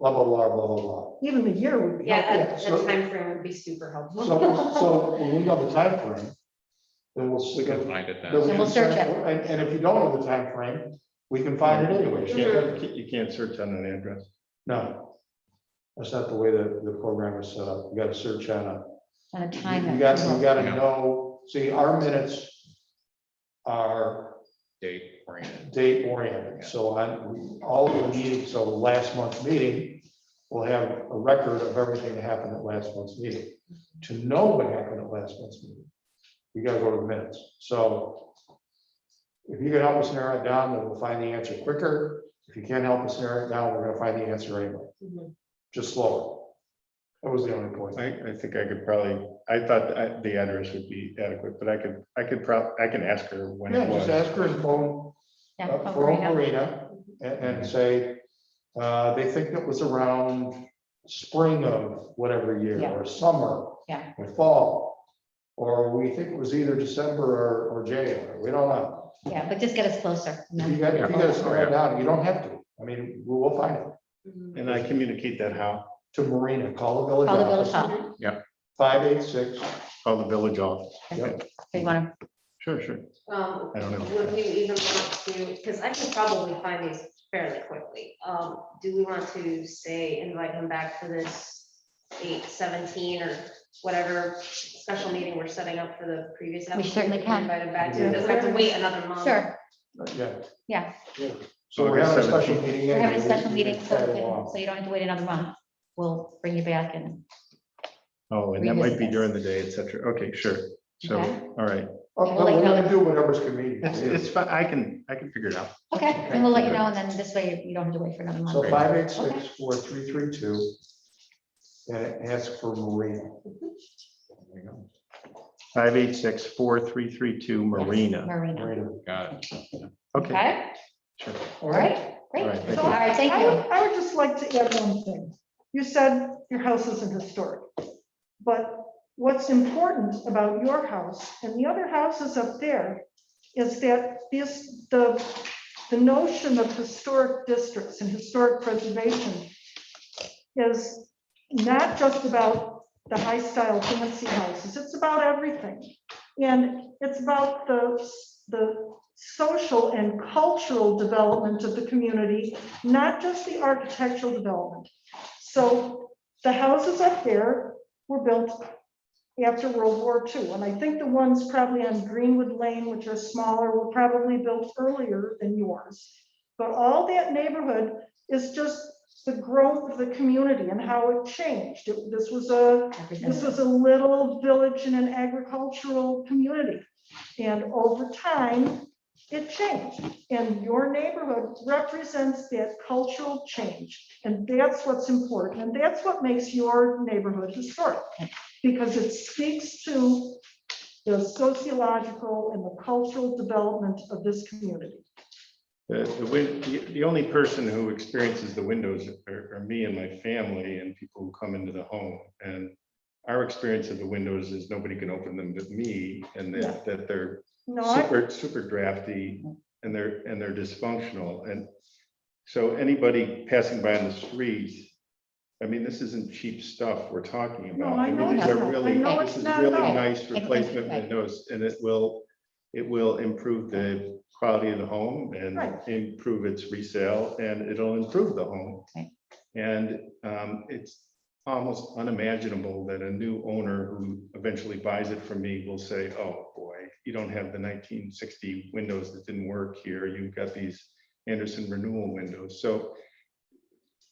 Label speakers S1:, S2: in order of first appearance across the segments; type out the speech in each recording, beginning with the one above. S1: blah, blah, blah, blah, blah, blah.
S2: Even a year would be
S3: Yeah,
S2: helpful.
S3: that,
S1: so-
S3: that frame would be super helpful.
S1: So, so when we know the timeframe, then we'll,
S4: We
S1: see.
S4: can
S1: then
S4: find it
S1: we
S4: then.
S3: Then
S1: can
S3: we'll search
S1: search-
S3: it.
S1: And, and if you don't know the timeframe, we can find it
S4: You
S1: anyway.
S3: Mm-hmm.
S4: can't, you can't search on an address.
S1: No, that's not the way that the program is set up. You gotta search on a,
S5: on a
S1: you
S5: time.
S1: you got, you gotta
S4: Yeah.
S1: know, see, our minutes are
S4: Date oriented.
S1: date oriented. So on all of the meetings, so last month's meeting, we'll have a record of everything that happened at last month's meeting. To know what happened at last month's meeting, you gotta go to the minutes. So if you can help us narrow it down, then we'll find the answer quicker. If you can't help us narrow it down, we're gonna find the answer anyway,
S3: Mhm.
S1: just slower. That was the only point.
S4: I, I think I could probably, I thought the I- the address would be adequate, but I could, I could prob, I can ask her when
S1: Yeah,
S4: it
S1: just
S4: was.
S1: ask her and phone,
S5: Yeah,
S1: uh,
S5: from
S1: Pearl
S5: Marina.
S1: Marina and, and say, uh, they think it was around spring of whatever year
S5: Yeah.
S1: or summer.
S5: Yeah.
S1: Or fall, or we think it was either December or, or January, we don't know.
S5: Yeah, but just get us closer. you
S1: If you
S5: know.
S1: got, if you got to slow
S4: Yeah.
S1: it down, you don't have to, I mean, we will find it.
S3: Mhm.
S4: And I communicate that how,
S1: To Marina, call the village
S5: Call the village
S1: office,
S5: hall.
S1: five eight six,
S4: call the village office.
S1: Yep.
S5: If you want
S4: Sure, sure.
S3: Um,
S4: I don't know.
S3: would we even want to, because I can probably find these fairly quickly. Um, do we want to say invite him back for this eight seventeen or whatever special meeting we're setting up for the previous?
S5: We certainly
S3: application?
S5: can.
S3: Invite him back, to it doesn't have to wait another month.
S5: to, sure,
S1: yeah.
S5: Yeah.
S1: So we're having a
S4: August
S1: special meeting.
S5: we're having a
S1: anyway,
S5: special
S1: we can
S5: meeting, so,
S1: tag
S5: we can-
S1: along.
S5: so you don't have to wait another month. We'll bring you back and,
S4: Oh, and that might be
S5: Revisit this.
S4: during the day, et cetera. Okay, sure. So,
S5: Okay.
S4: all right.
S1: Oh,
S5: We'll
S1: no,
S5: let you
S1: We're
S5: know
S1: gonna
S5: that-
S1: do whatever's convenient.
S4: It's, it's, fi- I can, I can figure it out.
S5: okay, and we'll let you know, and then this way you don't have to wait for another month.
S1: So
S4: Great.
S1: five eight six four three three two. And ask for Marina. There you go,
S4: Five eight six four three three two
S5: Yes,
S4: Marina.
S5: Marina.
S1: Marina.
S4: Got it. Okay,
S5: Okay,
S4: sure.
S5: all right,
S4: All
S5: great.
S4: right, thank
S5: All
S4: you.
S5: right, thank
S2: I
S5: you.
S2: would, I would just like to add one thing. You said your house isn't historic, but what's important about your house and the other houses up there is that this, the, the notion of historic districts and historic preservation is not just about the high-style fancy houses, it's about everything. And it's about the, the social and cultural development of the community not just the architectural development. So the houses up there were built after World War II, and I think the ones probably on Greenwood Lane, which are smaller, were probably built earlier than yours. But all that neighborhood is just the growth of the community and how it changed. It- This was a this was a little village in an agricultural community. And over time, it changed. And your neighborhood represents that cultural change. And that's what's important. And that's what makes your neighborhood historic. Because it speaks to the sociological and the cultural development of this community.
S4: The, the, win- the the only person who experiences the windows are, are me and my family and people who come into the home. And our experience of the windows is nobody can open them but me and that, that they're
S2: No, I-
S4: super, super drafty and they're, and they're dysfunctional. And so anybody passing by on the street, I mean, this isn't cheap stuff we're talking
S2: no,
S4: about.
S2: I know
S4: mean,
S2: it's
S4: These are
S2: not. I
S4: really,
S2: know
S4: this
S2: it's
S4: is
S2: not at
S4: really
S2: all.
S4: nice replacement windows and it will, it will improve the quality of the home and
S2: Right.
S4: improve its resale and it'll improve the home.
S5: Right.
S4: And um, it's almost unimaginable that a new owner who eventually buys it from me will say, oh, boy, you don't have the nineteen sixty windows that didn't work here. You've got these Anderson renewal windows. So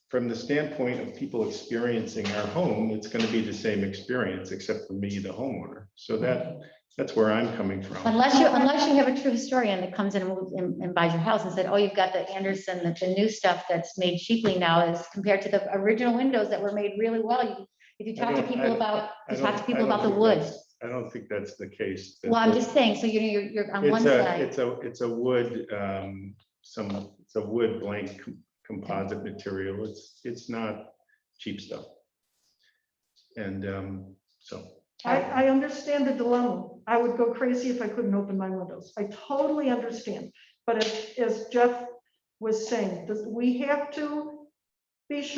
S4: from the standpoint of people experiencing our home, it's going to be the same experience except for me, the homeowner. So that, that's where I'm coming from.
S5: Unless you, unless you have a true historian that comes in and moves- and and buys your house and said, oh, you've got the Anderson, that the new stuff that's made cheaply now is compared to the original windows that were made really well. You- If you
S4: I
S5: talk to
S4: don't-
S5: people
S4: I-
S5: about,
S4: I
S5: you talk to
S4: don't- I
S5: people
S4: don't
S5: about the
S4: think
S5: wood.
S4: that's- I don't think that's the case. that
S5: Well, I'm
S4: the-
S5: just saying, so you know, you're, you're on one
S4: It's a,
S5: side,
S4: it's a, it's a wood, um, some, it's a wood blank com- composite material. It's, it's not cheap stuff. And, um, so,
S2: I, I understand the dilemma. I would go crazy if I couldn't open my windows. I totally understand. But as, as Jeff was saying, this- we have to be sure.